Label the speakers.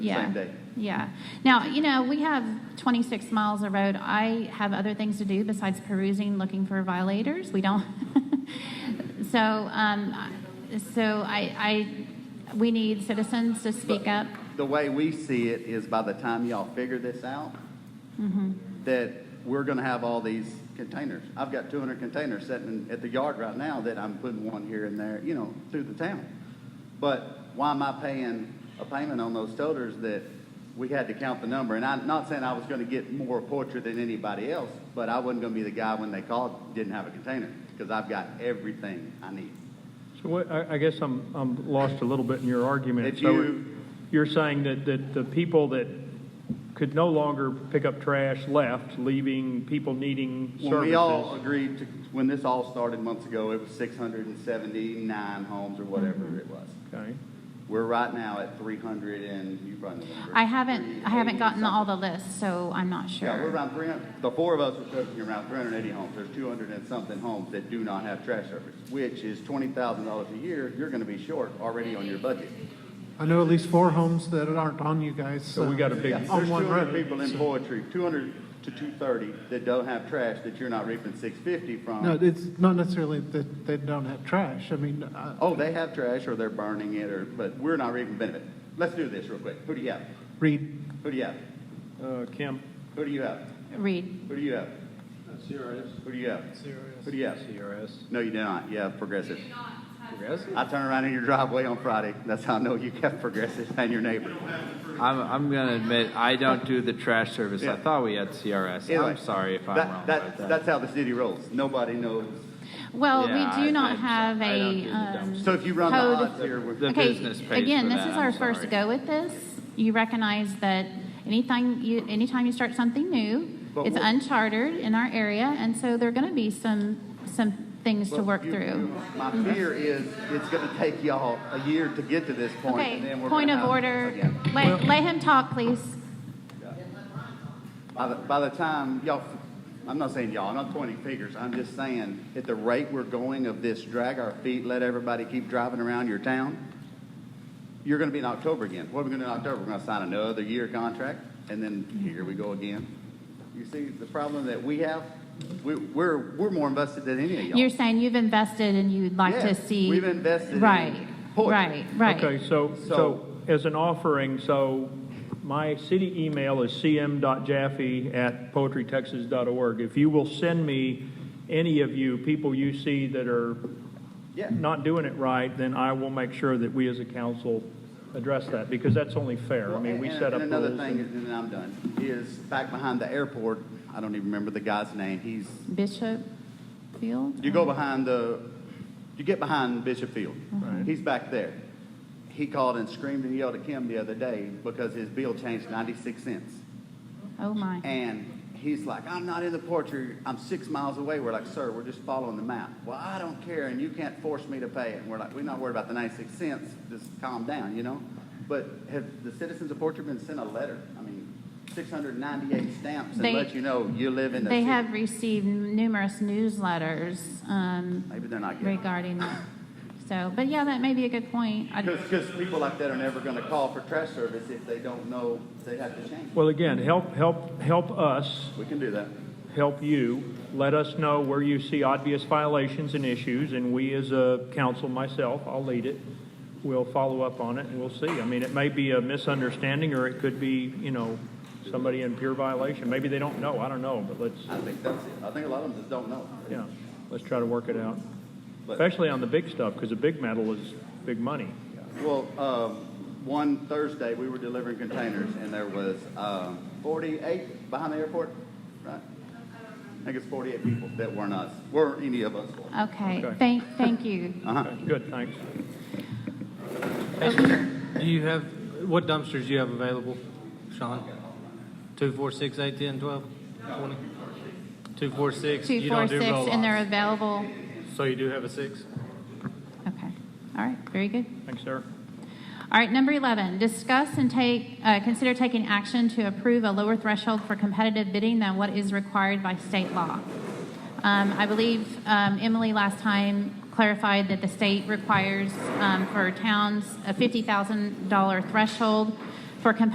Speaker 1: Yeah.
Speaker 2: same day.
Speaker 1: Yeah. Now, you know, we have 26 miles of road. I have other things to do besides perusing, looking for violators. We don't. so, um, I- so I, I, we need citizens to speak up.
Speaker 2: The way we see it is by the time y'all figure this out,
Speaker 1: Mm-hmm.
Speaker 2: that we're gonna have all these containers. I've got two hundred containers sitting at the yard right now that I'm putting one here and there, you know, through the town. But why am I paying a payment on those toters that we had to count the number? And I'm not saying I was gonna get more poetry than anybody else, but I wasn't gonna be the guy when they called, didn't have a container, because I've got everything I need.
Speaker 3: So what, I, I guess I'm, I'm lost a little bit in your argument.
Speaker 2: If
Speaker 3: So
Speaker 2: you-
Speaker 3: You're saying that, that the people that could no longer pick up trash left, leaving people needing
Speaker 2: When we all
Speaker 3: services.
Speaker 2: agreed to, when this all started months ago, it was six hundred and seventy-nine homes or
Speaker 4: Mm-hmm.
Speaker 2: whatever it was.
Speaker 3: Okay.
Speaker 2: We're right now at three hundred and, you run the number.
Speaker 1: I haven't, I haven't
Speaker 2: 380
Speaker 1: gotten all the
Speaker 2: something.
Speaker 1: lists, so I'm not sure.
Speaker 2: Yeah, we're around three hundred, the four of us are cooking around three hundred and eighty homes. There's two hundred and something homes that do not have trash service, which is twenty thousand dollars a year. You're gonna be short already on your budget.
Speaker 4: I know at least four homes that aren't on you guys. uh,
Speaker 3: So we got a big,
Speaker 2: Yeah,
Speaker 4: On
Speaker 2: There's two
Speaker 4: one
Speaker 2: hundred
Speaker 4: road,
Speaker 2: people in
Speaker 4: so-
Speaker 2: poetry, two hundred to two thirty that don't have trash that you're not reaping six fifty from.
Speaker 4: No, it's not necessarily that they don't have trash. I mean, uh, I-
Speaker 2: Oh, they have trash or they're burning it or, but we're not reaping benefit. Let's do this real quick. Who do you have?
Speaker 4: Reed,
Speaker 2: Who do you have?
Speaker 3: uh, Kemp,
Speaker 2: Who do you have?
Speaker 1: Read.
Speaker 2: Who do you have? CRS. Who do you have?
Speaker 4: CRS.
Speaker 2: Who do you have?
Speaker 5: CRS.
Speaker 2: No, you do not. You have progressive.
Speaker 5: Progressive?
Speaker 2: I turn around in your driveway on Friday. That's how I know you have progressive and your neighbor.
Speaker 5: I'm, I'm gonna admit, I don't do the trash service.
Speaker 2: Yeah.
Speaker 5: I thought we had CRS.
Speaker 2: Anyway,
Speaker 5: I'm sorry if I'm
Speaker 2: that-
Speaker 5: wrong
Speaker 2: that-
Speaker 5: about that.
Speaker 2: That's how the city rolls. Nobody knows.
Speaker 1: Well,
Speaker 5: Yeah,
Speaker 1: we do
Speaker 5: I-
Speaker 1: not
Speaker 5: I'm so-
Speaker 1: have
Speaker 5: I don't do
Speaker 1: a.
Speaker 5: the
Speaker 1: Um,
Speaker 2: So if you run the
Speaker 1: Code.
Speaker 2: odds here, we're.
Speaker 5: The
Speaker 1: okay,
Speaker 5: business pays
Speaker 1: again,
Speaker 5: for
Speaker 1: this is
Speaker 5: that,
Speaker 1: our
Speaker 5: I'm
Speaker 1: first
Speaker 5: sorry.
Speaker 1: go with this. You recognize that anything you, anytime you start something new,
Speaker 2: But
Speaker 1: it's
Speaker 2: what-
Speaker 1: uncharted in our area, and so there are going to be some some things to
Speaker 2: Well,
Speaker 1: work
Speaker 2: you-
Speaker 1: through.
Speaker 2: you- My fear is it's going to take y'all a year to get to this point, and
Speaker 1: okay,
Speaker 2: then we're
Speaker 1: point
Speaker 2: gonna
Speaker 1: of
Speaker 2: have-
Speaker 1: order.
Speaker 2: again.
Speaker 1: Let, let him talk, please.
Speaker 2: By the, by the time y'all, I'm not saying y'all, I'm not pointing fingers. I'm just saying at the rate we're going of this, drag our feet, let everybody keep driving around your town. You're going to be in October again. What are we going to do in October? We're going to sign another year contract, and then here we go again. You see the problem that we have. We, we're we're more invested than any of y'all.
Speaker 1: You're saying you've invested and you'd like to
Speaker 2: Yes,
Speaker 1: see.
Speaker 2: we've invested in
Speaker 1: Right.
Speaker 2: poetry.
Speaker 1: Right. Right.
Speaker 3: Okay, so, so as an offering, so my city email is cm.jaffe@poetrytexas.org. If you will send me any of you, people you see that are
Speaker 2: yeah.
Speaker 3: not doing it right, then I will make sure that we as a council address that, because that's only fair. I mean, we
Speaker 2: And-
Speaker 3: set up
Speaker 2: And another
Speaker 3: rules.
Speaker 2: thing,
Speaker 3: and-
Speaker 2: and then I'm done, is back behind the airport. I don't even remember the guy's name. He's
Speaker 1: Bishop Field.
Speaker 2: You go behind the, you get behind Bishop Field.
Speaker 1: Mm-hmm.
Speaker 2: He's back there. He called and screamed and yelled at Kim the other day because his bill changed 96 cents.
Speaker 1: Oh my.
Speaker 2: And he's like, I'm not in the poetry. I'm six miles away. We're like, sir, we're just following the map. Well, I don't care, and you can't force me to pay it. And we're like, we're not worried about the 96 cents. Just calm down, you know? But have the citizens of Portrait been sent a letter? I mean, 698 stamps and
Speaker 1: They-
Speaker 2: let you know you live in the
Speaker 1: They
Speaker 2: city.
Speaker 1: have received numerous newsletters um,
Speaker 2: Maybe they're not getting it.
Speaker 1: regarding that. So, but yeah, that may be a good point. I-
Speaker 2: Because people like that are never going to call for trash service if they don't know they have to change.
Speaker 3: Well, again, help, help, help us,
Speaker 2: We can do that.
Speaker 3: help you. Let us know where you see obvious violations and issues, and we as a council, myself, I'll lead it, will follow up on it, and we'll see. I mean, it may be a misunderstanding, or it could be, you know, somebody in pure violation. Maybe they don't know, I don't know, but let's,
Speaker 2: I think that's it. I think a lot of them just don't know.
Speaker 3: yeah, let's try to work it out.
Speaker 2: But-
Speaker 3: Especially on the big stuff, because the big metal is big money.
Speaker 2: Well, um, one Thursday, we were delivering containers, and there was um, 48 behind the airport, right? I think it's 48 people that weren't us, weren't any of us.
Speaker 1: Okay,
Speaker 3: Okay.
Speaker 1: thank, thank you.
Speaker 6: Uh,
Speaker 3: Good, thanks.
Speaker 6: Do you have, what dumpsters do you have available, Sean? Two, four, six, eight, ten, twelve, twenty? Two, four, six,
Speaker 1: Two,
Speaker 6: you
Speaker 1: four,
Speaker 6: don't do
Speaker 1: six, and they're
Speaker 6: roll-offs.
Speaker 1: available.
Speaker 6: So you do have a six?
Speaker 1: Okay, all right, very good.
Speaker 3: Thanks, sir.
Speaker 1: All right, number 11, discuss and take, uh, consider taking action to approve a lower threshold for competitive bidding than what is required by state law. Um, I believe um, Emily last time clarified that the state requires um, for towns a $50,000 threshold for competitive